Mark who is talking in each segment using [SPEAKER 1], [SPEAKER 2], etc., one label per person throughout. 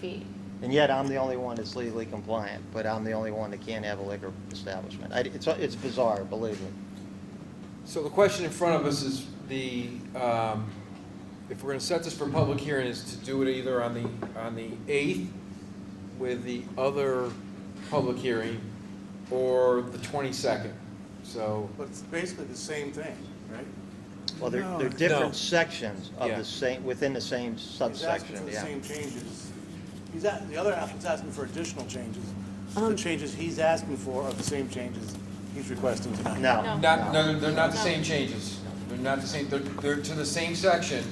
[SPEAKER 1] feet.
[SPEAKER 2] And yet, I'm the only one that's legally compliant, but I'm the only one that can't have a liquor establishment. I, it's, it's bizarre, believe me.
[SPEAKER 3] So the question in front of us is the, um, if we're gonna set this for public hearing, is to do it either on the, on the eighth with the other public hearing, or the twenty-second, so.
[SPEAKER 4] But it's basically the same thing, right?
[SPEAKER 2] Well, they're,
[SPEAKER 4] No.
[SPEAKER 2] they're
[SPEAKER 3] No.
[SPEAKER 2] different sections of
[SPEAKER 3] Yeah.
[SPEAKER 2] the same, within the same
[SPEAKER 4] He's asking for
[SPEAKER 2] subsection,
[SPEAKER 4] the
[SPEAKER 2] yeah.
[SPEAKER 4] same changes. He's, a- the other applicant's asking for additional changes. The
[SPEAKER 5] Um,
[SPEAKER 4] changes he's asking for are the same changes he's requesting tonight.
[SPEAKER 2] No,
[SPEAKER 1] No.
[SPEAKER 3] Not,
[SPEAKER 2] no.
[SPEAKER 3] no, they're not the same changes, they're not the same, they're, they're to the same section,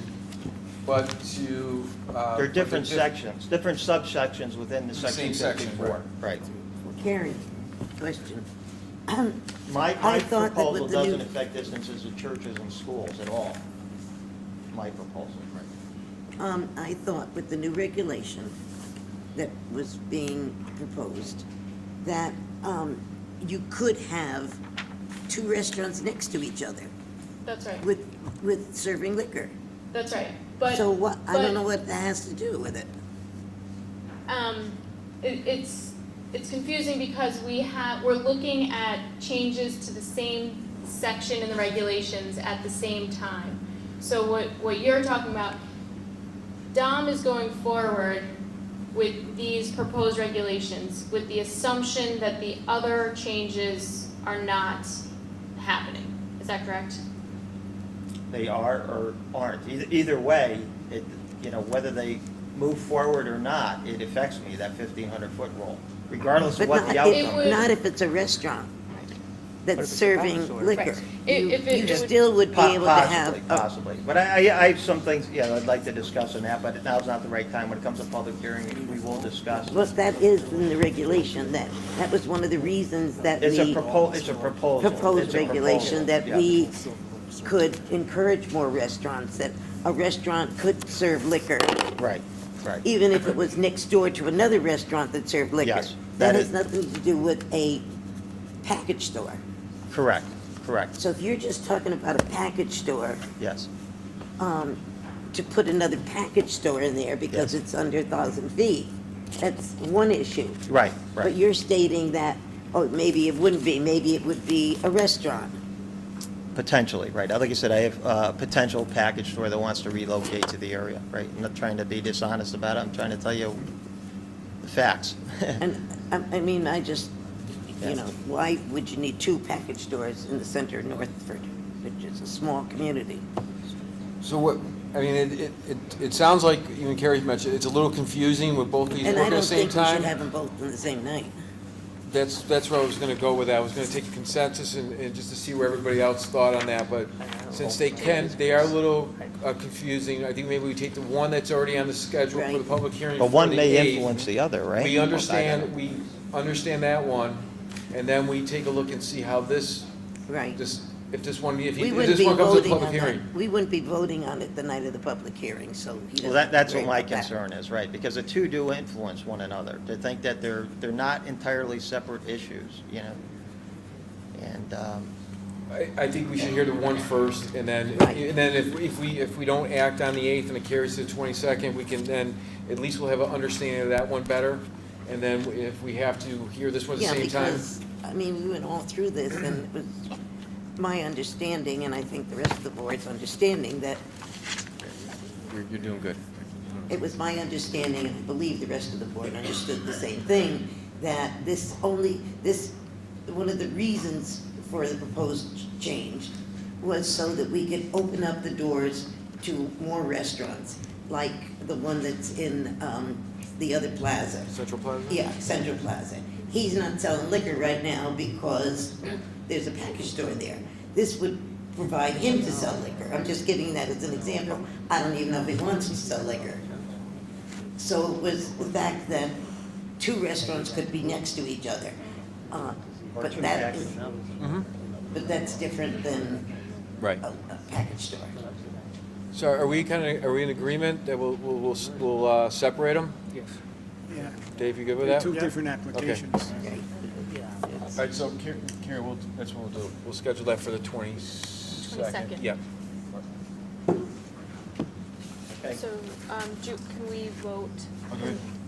[SPEAKER 3] but to, uh.
[SPEAKER 2] They're different
[SPEAKER 3] but they're diff-
[SPEAKER 2] sections, different subsections within the
[SPEAKER 3] The
[SPEAKER 2] section
[SPEAKER 3] same section,
[SPEAKER 2] 54. Right.
[SPEAKER 5] Karen, question.
[SPEAKER 2] My, my
[SPEAKER 5] I thought that
[SPEAKER 2] proposal
[SPEAKER 5] with the new-
[SPEAKER 2] doesn't affect distances of churches and schools at all. My proposal.
[SPEAKER 5] Um, I thought with the new regulation that was being proposed, that, um, you could have two restaurants next to each other
[SPEAKER 1] That's right.
[SPEAKER 5] with, with serving liquor.
[SPEAKER 1] That's right. But
[SPEAKER 5] So what, I
[SPEAKER 1] but,
[SPEAKER 5] don't know what that has to do with it.
[SPEAKER 1] Um, it, it's it's confusing because we have we're looking at changes to the same section in the regulations at the same time. So what what you're talking about, Dom is going forward with these proposed regulations with the assumption that the other changes are not happening. Is that correct?
[SPEAKER 2] They are or aren't. Either, either way, it, you know, whether they move forward or not, it affects me, that 1,500-foot rule, regardless of
[SPEAKER 5] But
[SPEAKER 2] what the
[SPEAKER 5] not,
[SPEAKER 2] outcome
[SPEAKER 1] would-
[SPEAKER 5] if, not if it's a restaurant that's serving liquor.
[SPEAKER 1] Right. I-
[SPEAKER 5] You,
[SPEAKER 1] if it-
[SPEAKER 5] you
[SPEAKER 1] it would-
[SPEAKER 5] still would be
[SPEAKER 2] Po-
[SPEAKER 5] able to have,
[SPEAKER 2] Possibly,
[SPEAKER 5] oh. a-
[SPEAKER 2] possibly. But I, I, I have some things, yeah, I'd like to discuss on that, but now's not the right time. When it comes to public hearing, we will discuss.
[SPEAKER 5] well, that is in the regulation, that, that was one of the reasons that we.
[SPEAKER 2] It's a propo, it's a proposal.
[SPEAKER 5] proposed
[SPEAKER 2] It's a proposal,
[SPEAKER 5] regulation that
[SPEAKER 2] yeah.
[SPEAKER 5] we could encourage more restaurants, that a restaurant could serve liquor,
[SPEAKER 2] Right, right.
[SPEAKER 5] even if it was next door to another restaurant that served liquor.
[SPEAKER 2] Yes, that
[SPEAKER 5] That has
[SPEAKER 2] is-
[SPEAKER 5] nothing to do with a package store.
[SPEAKER 2] Correct, correct,
[SPEAKER 5] So if you're just talking about a package store,
[SPEAKER 2] yes.
[SPEAKER 5] to put another package store in there because
[SPEAKER 2] Yes.
[SPEAKER 5] it's under 1,000 feet, that's one issue.
[SPEAKER 2] Right,
[SPEAKER 5] But
[SPEAKER 2] right.
[SPEAKER 5] you're stating that, oh, maybe it wouldn't be, maybe it would be a restaurant.
[SPEAKER 2] Potentially, right. Like I said, I have a potential package store that wants to relocate to the area, right? I'm not trying to be dishonest about it. I'm trying to tell you the facts.
[SPEAKER 5] And, I, I mean, I just, you
[SPEAKER 2] Yes.
[SPEAKER 5] know, why would you need two package stores in the center of Northford, which is a small community?
[SPEAKER 3] So what, I mean, it, it, it, it sounds like, even Carrie mentioned, it's a little confusing with both these
[SPEAKER 5] And I
[SPEAKER 3] working at
[SPEAKER 5] don't
[SPEAKER 3] the same
[SPEAKER 5] think we should
[SPEAKER 3] time.
[SPEAKER 5] have them both on the same night.
[SPEAKER 3] That's, that's where I was gonna go with that, I was gonna take a consensus and, and just to see where everybody else thought on that, but since they can, they are a little uh, confusing, I think maybe we take the one that's already on the schedule for the
[SPEAKER 5] Right.
[SPEAKER 3] public hearing
[SPEAKER 2] But one
[SPEAKER 3] for the
[SPEAKER 2] may
[SPEAKER 3] 8th.
[SPEAKER 2] influence the other, right?
[SPEAKER 3] We understand, we understand that one, and then we take a look and see how this,
[SPEAKER 5] Right.
[SPEAKER 3] this, if this one, if
[SPEAKER 5] We
[SPEAKER 3] if
[SPEAKER 5] wouldn't
[SPEAKER 3] this
[SPEAKER 5] be
[SPEAKER 3] one comes to the
[SPEAKER 5] voting
[SPEAKER 3] public
[SPEAKER 5] on
[SPEAKER 3] hearing.
[SPEAKER 5] that. We wouldn't be voting on it the night of the public hearing, so he
[SPEAKER 2] Well,
[SPEAKER 5] doesn't
[SPEAKER 2] that, that's
[SPEAKER 5] worry
[SPEAKER 2] what my
[SPEAKER 5] about that.
[SPEAKER 2] concern is, right, because the two do influence one another, to think that they're, they're not entirely separate issues, you know? And, um,
[SPEAKER 3] I, I think we should hear the one first, and then,
[SPEAKER 5] Right.
[SPEAKER 3] and then if, if we, if we don't act on the eighth and it carries to the twenty-second, we can then, at least we'll have an understanding of that one better. And then if we have to hear this one at the
[SPEAKER 5] Yeah,
[SPEAKER 3] same time.
[SPEAKER 5] because, I mean, we went all through this, and it was my understanding, and I think the rest of the board's understanding, that
[SPEAKER 3] You're, you're doing good.
[SPEAKER 5] It was my understanding, and I believe the rest of the board understood the same thing, that this only, this, one of the reasons for the proposed change was so that we could open up the doors to more restaurants, like the one that's in, um, the other plaza.
[SPEAKER 3] Central Plaza?
[SPEAKER 5] Yeah, Central Plaza. He's not selling liquor right now because there's a package store there. This would provide him to sell liquor. I'm just giving that as an example. I don't even know if he wants to sell liquor. So it was the fact that two restaurants could be next to each other. Uh, But that is,
[SPEAKER 3] Mm-hmm.
[SPEAKER 5] but that's different than
[SPEAKER 3] Right.
[SPEAKER 5] a, a package store.
[SPEAKER 3] So are we kind of, are we in agreement that we'll, we'll, we'll, s- we'll, uh, separate them?
[SPEAKER 6] Yes. Yeah,
[SPEAKER 3] Dave, you good with
[SPEAKER 6] they're
[SPEAKER 3] that?
[SPEAKER 6] two
[SPEAKER 3] All
[SPEAKER 6] different applications.
[SPEAKER 5] Okay. It's-
[SPEAKER 3] right, so Carrie, Carrie, we'll, that's what we'll do. We'll schedule that for the twenty-second.
[SPEAKER 1] 22nd.
[SPEAKER 3] Yeah.
[SPEAKER 2] okay.
[SPEAKER 1] So, um, do, can we vote?
[SPEAKER 3] Okay.